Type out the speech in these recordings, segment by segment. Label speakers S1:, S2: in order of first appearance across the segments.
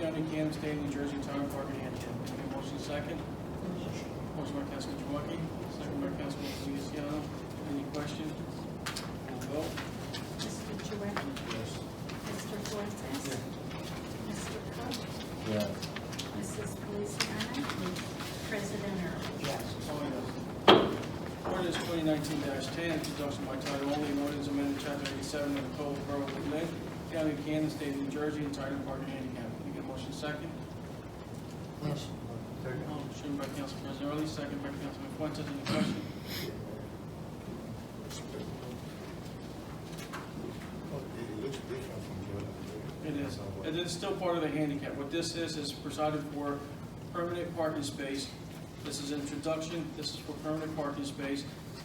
S1: County, Kansas State, New Jersey, Title Park, and Antioch. Can I get a motion second? Motion by Councilman Chouwaki, second by Councilman Feliciano. Any questions? We'll vote.
S2: Mr. Chouwaki?
S3: Yes.
S2: Mr. Fuentes? Mr. Cook?
S3: Yes.
S2: Mrs. Feliciano? President Early?
S1: Yes. Ordinance twenty nineteen ten, introduction by title only, an ordinance amended chapter eighty-seven of the Code of Borough of Lynn, County of Kansas, State of New Jersey, entitled Parking Handicap. Can I get a motion second?
S3: Yes.
S1: Motion by Council President Early, second by Councilman Fuentes, any question?
S3: It looks different from the other.
S1: It is, it is still part of the handicap. What this is, is presided for permanent parking space. This is introduction, this is for permanent parking space,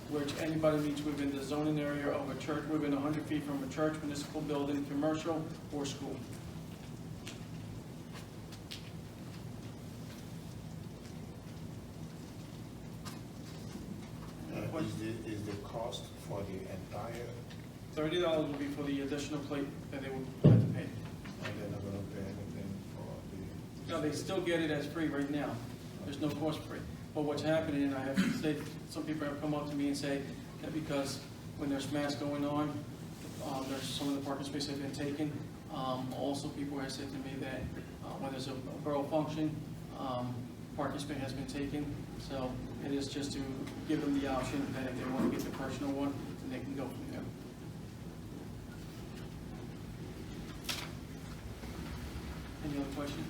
S1: which anybody meets within the zoning area of a church, within hundred feet from a church, municipal building, commercial, or school.
S3: Uh, Is the, is the cost for the entire,
S1: Thirty dollars will be for the additional plate that they will have to pay.
S3: and they're not gonna pay anything for the?
S1: Now, they still get it as free right now. There's no cost for it. But what's happening, and I have to say, some people have come up to me and say that because when there's mass going on, um, there's some of the parking spaces have been taken. Um, also, people have said to me that, uh, when there's a a borough function, um, parking space has been taken. So it is just to give them the option that if they want to get the personal one, then they can go from there. Any other question?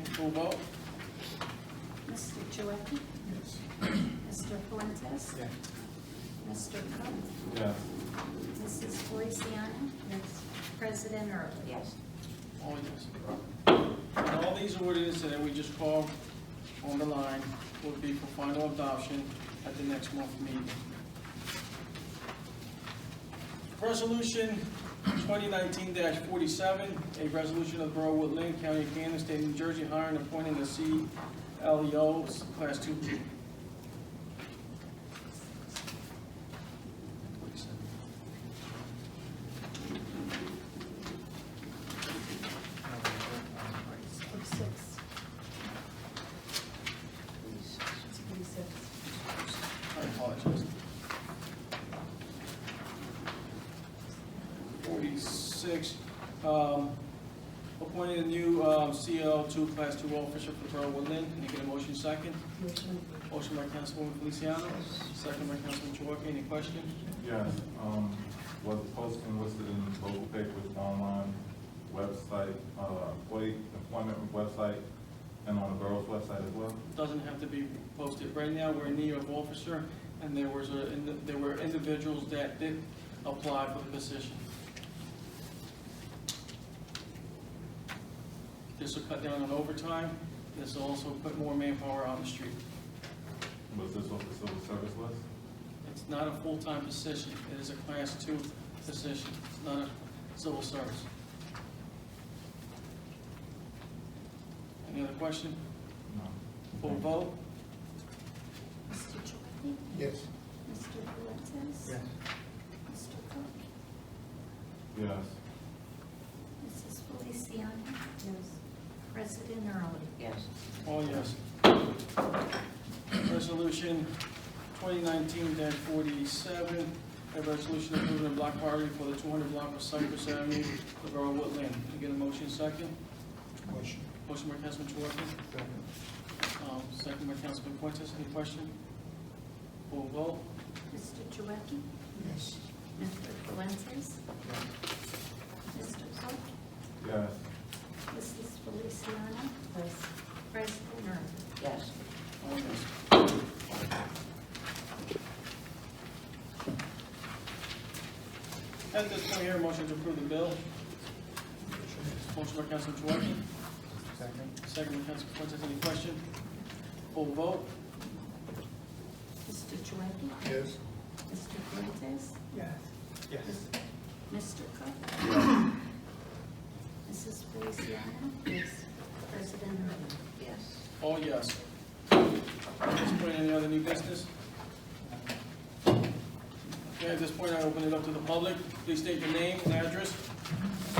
S1: Okay, Full vote?
S2: Mr. Chouwaki?
S3: Yes.
S2: Mr. Fuentes?
S1: Yeah.
S2: Mr. Cook?
S3: Yeah.
S2: Mrs. Feliciano? Yes. President Early? Yes.
S1: All yes. And all these ordinances that we just called on the line will be for final adoption at the next month's meeting. Resolution twenty nineteen forty-seven, a resolution of the Borough of Woodland, County of Kansas, State of New Jersey, hiring and appointing a CLEO Class Two B.
S2: Six. Forty-six.
S1: I apologize. Forty-six, um, appointing a new, um, CL two, class two officer for Borough Woodland. Can you get a motion second? Motion by Councilwoman Feliciano, second by Councilman Chouwaki. Any question?
S4: Yes, um, was the posting listed in the local papers, online website, uh, employee, employment website, and on the borough's website as well?
S1: Doesn't have to be posted. Right now, we're in need of officer, and there was a, and there were individuals that did apply for the position. This will cut down on overtime. This will also put more manpower on the street.
S4: Was this off the civil service list?
S1: It's not a full-time position. It is a class two position. It's not a civil service. Any other question?
S4: No.
S1: Full vote?
S2: Mr. Chouwaki?
S3: Yes.
S2: Mr. Fuentes? Mr. Cook?
S4: Yes,
S2: Mrs. Feliciano? Yes. President Early? Yes.
S1: All Oh, yes. Resolution 2019-47, a resolution approving a block party for the 200 block of Cypress Avenue, the Borough of Woodland. Can I get a motion second?
S3: Motion.
S1: Motion by Councilman Chouwaki, um, second by Councilman Fuentes. Any question? Full vote?
S2: Mr. Chouwaki?
S3: Yes.
S2: Mr. Fuentes? Mr. Cook?
S4: yes,
S2: Mrs. Feliciano? Yes. President Early?
S5: Yes.
S1: All yes. At this point here, motion to approve the bill. Motion by Councilman Chouwaki,
S3: Second.
S1: Second, Council Fuentes, any question? Full vote?
S2: Mr. Chouwaki?
S3: Yes.
S2: Mr. Fuentes?
S3: Yes.
S2: Mr. Cook? Mrs. Feliciano? Yes. President Early?
S5: Yes.
S1: All Oh, yes. At this point, any other new business? Okay, at this point, I open it up to the public. Please state your name and address